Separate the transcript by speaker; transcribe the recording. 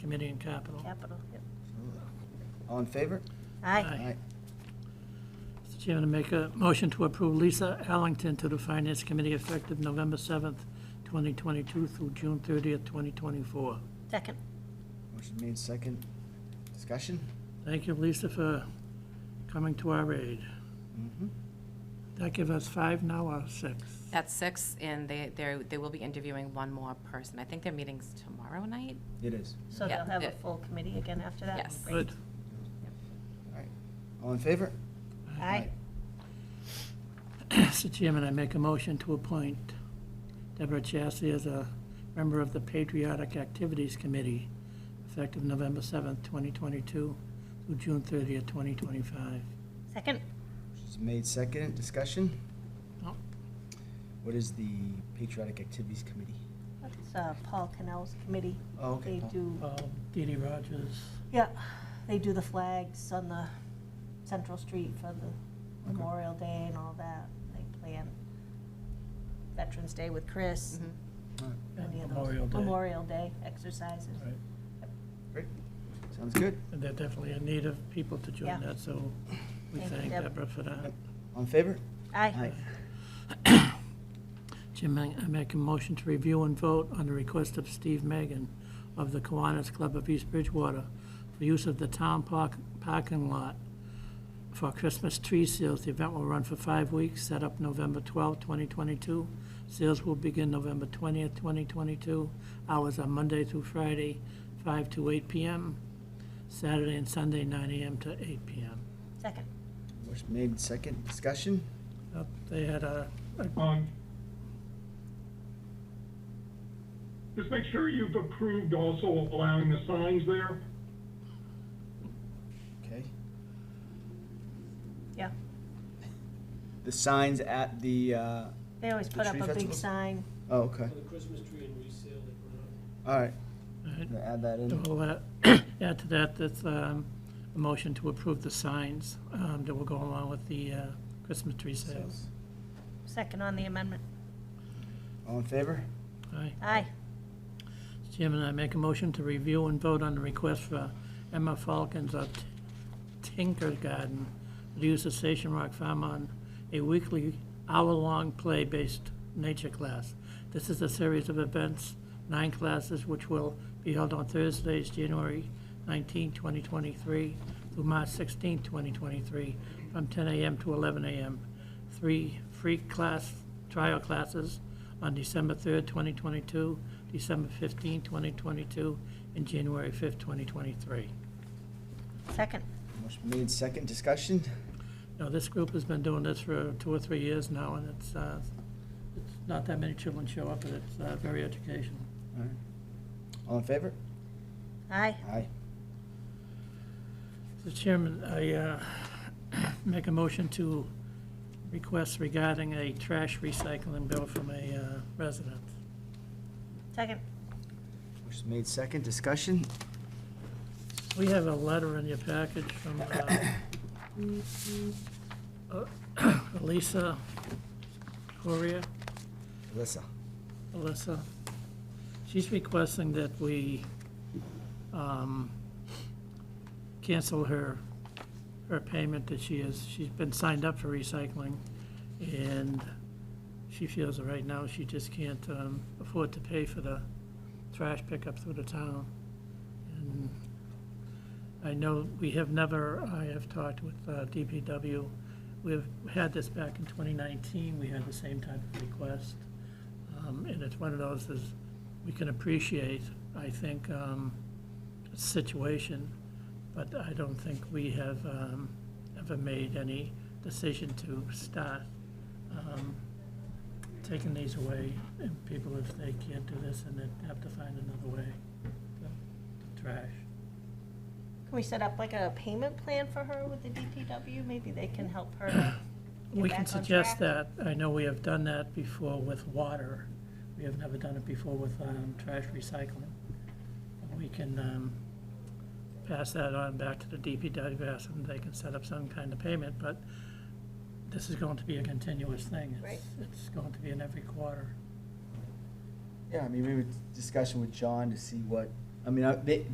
Speaker 1: Committee and Capital.
Speaker 2: Capital, yep.
Speaker 3: All in favor?
Speaker 2: Aye.
Speaker 1: Aye. Mr. Chairman, I make a motion to approve Lisa Allington to the Finance Committee effective November 7th, 2022 through June 30th, 2024.
Speaker 2: Second.
Speaker 3: Motion made second. Discussion?
Speaker 1: Thank you, Lisa, for coming to our aid.
Speaker 3: Mm-hmm.
Speaker 1: That give us five now or six?
Speaker 4: That's six, and they, they they will be interviewing one more person. I think their meeting's tomorrow night.
Speaker 3: It is.
Speaker 2: So
Speaker 4: Yeah,
Speaker 2: they'll have a
Speaker 4: yeah.
Speaker 2: full committee again after that?
Speaker 4: Yes.
Speaker 2: Great.
Speaker 1: Good.
Speaker 3: All right. All in favor?
Speaker 2: Aye.
Speaker 1: Mr. Chairman, I make a motion to appoint Deborah Chassie as a member of the Patriotic Activities Committee effective November 7th, 2022 through June 30th, 2025.
Speaker 2: Second.
Speaker 3: Motion's made second. Discussion?
Speaker 1: No.
Speaker 3: What is the Patriotic Activities Committee?
Speaker 2: That's uh, Paul Cannell's committee.
Speaker 3: Oh, okay,
Speaker 2: They
Speaker 3: Paul.
Speaker 2: do,
Speaker 1: Paul, Dee Dee Rogers.
Speaker 2: yeah, they do the flags on the Central Street for the Memorial Day and all that. They plan Veterans Day with Chris,
Speaker 4: Mhm.
Speaker 3: All right.
Speaker 1: and
Speaker 2: any of those.
Speaker 1: Memorial Day.
Speaker 2: Memorial Day exercises.
Speaker 1: Right.
Speaker 3: Great. Sounds good.
Speaker 1: And they're definitely in need of people to
Speaker 2: Yeah.
Speaker 1: join that, so we
Speaker 2: Thank you,
Speaker 1: thank
Speaker 2: Deb.
Speaker 1: Deborah for that.
Speaker 3: All in favor?
Speaker 2: Aye.
Speaker 1: Jim, I I make a motion to review and vote on the request of Steve Megan of the Kiwanis Club of East Bridgewater for use of the town park, parking lot for Christmas tree sales. The event will run for five weeks, set up November 12, 2022. Sales will begin November 20th, 2022. Hours are Monday through Friday, 5 to 8 PM, Saturday and Sunday, 9 AM to 8 PM.
Speaker 2: Second.
Speaker 3: Motion made second. Discussion?
Speaker 1: Uh, They had a, a
Speaker 5: Um, Just make sure you've approved also allowing the signs there.
Speaker 3: Okay.
Speaker 2: Yeah.
Speaker 3: The signs at the, uh,
Speaker 2: They always
Speaker 3: The
Speaker 2: put up
Speaker 3: tree
Speaker 2: a big
Speaker 3: festival?
Speaker 2: sign.
Speaker 3: oh, okay.
Speaker 6: For the Christmas tree and resale that went up.
Speaker 3: All right.
Speaker 1: All
Speaker 3: Gonna Add that in.
Speaker 1: We'll uh, add to that, that's um, a motion to approve the signs um, that will go along with the uh, Christmas tree sales.
Speaker 2: Second on the amendment.
Speaker 3: All in favor?
Speaker 1: Aye.
Speaker 2: Aye.
Speaker 1: Chairman, I make a motion to review and vote on the request for Emma Falcons of Tinker Garden to use the Station Rock Farm on a weekly hour-long play-based nature class. This is a series of events, nine classes, which will be held on Thursdays, January 19, 2023 through March 16, 2023, from 10 a.m. to 11 a.m. Three free class, trial classes on December 3rd, 2022, December 15, 2022, and January 5th, 2023.
Speaker 2: Second.
Speaker 3: Motion made second. Discussion?
Speaker 1: Now, this group has been doing this for two or three years now, and it's, uh, it's not that many children show up, and it's uh, very educational.
Speaker 3: All right. All in favor?
Speaker 2: Aye.
Speaker 3: Aye.
Speaker 1: Mr. Chairman, I uh, make a motion to request regarding a trash recycling bill from a uh, resident.
Speaker 2: Second.
Speaker 3: Motion made second. Discussion?
Speaker 1: We have a letter in your package from uh, uh, Lisa Correa.
Speaker 3: Alyssa.
Speaker 1: Alyssa. She's requesting that we um, cancel her, her payment that she is, she's been signed up for recycling, and she feels that right now she just can't um, afford to pay for the trash pickup through the town. And I know we have never, I have talked with uh, DPW, we've had this back in 2019, we had the same type of request. Um, And it's one of those is, we can appreciate, I think, um, the situation, but I don't think we have um, ever made any decision to start um, taking these away, and people, if they can't do this, and they have to find another way to- to trash.
Speaker 2: Can we set up like a payment plan for her with the DPW? Maybe they can help her to get
Speaker 1: We can
Speaker 2: back on
Speaker 1: suggest
Speaker 2: track?
Speaker 1: that. I know we have done that before with water. We have never done it before with um, trash recycling. We can um, pass that on back to the DPW, ask them if they can set up some kind of payment, but this is going to be a continuous thing. It's- It's going to be in every quarter.
Speaker 3: Yeah, I mean, we were discussing with John to see what, I mean, I- they,